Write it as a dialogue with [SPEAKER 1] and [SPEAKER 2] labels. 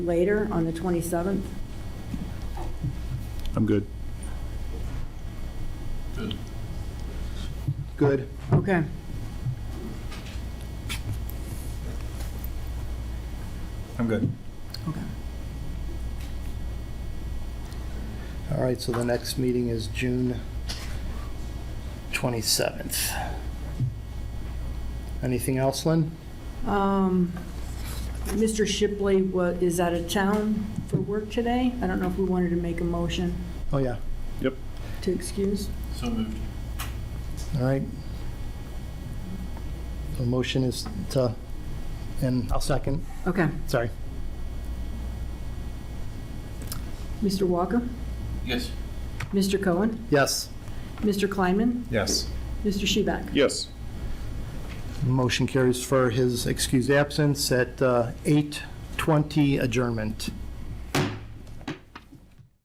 [SPEAKER 1] later on the 27th?
[SPEAKER 2] I'm good.
[SPEAKER 3] Good.
[SPEAKER 1] Okay.
[SPEAKER 2] I'm good.
[SPEAKER 1] Okay.
[SPEAKER 3] All right, so the next meeting is June 27th. Anything else, Lynn?
[SPEAKER 1] Um, Mr. Shipley wa- is out of town for work today. I don't know if we wanted to make a motion
[SPEAKER 3] Oh, yeah.
[SPEAKER 1] to excuse.
[SPEAKER 4] So moved.
[SPEAKER 3] All right. The motion is to, and I'll second,
[SPEAKER 1] Okay.
[SPEAKER 3] sorry.
[SPEAKER 1] Mr. Walker?
[SPEAKER 4] Yes.
[SPEAKER 1] Mr. Cohen?
[SPEAKER 3] Yes,
[SPEAKER 1] Mr. Kleinman?
[SPEAKER 2] Yes.
[SPEAKER 1] Mr. Shebeck?
[SPEAKER 2] Yes.
[SPEAKER 3] motion carries for his excused absence at uh, 8:20 adjournment.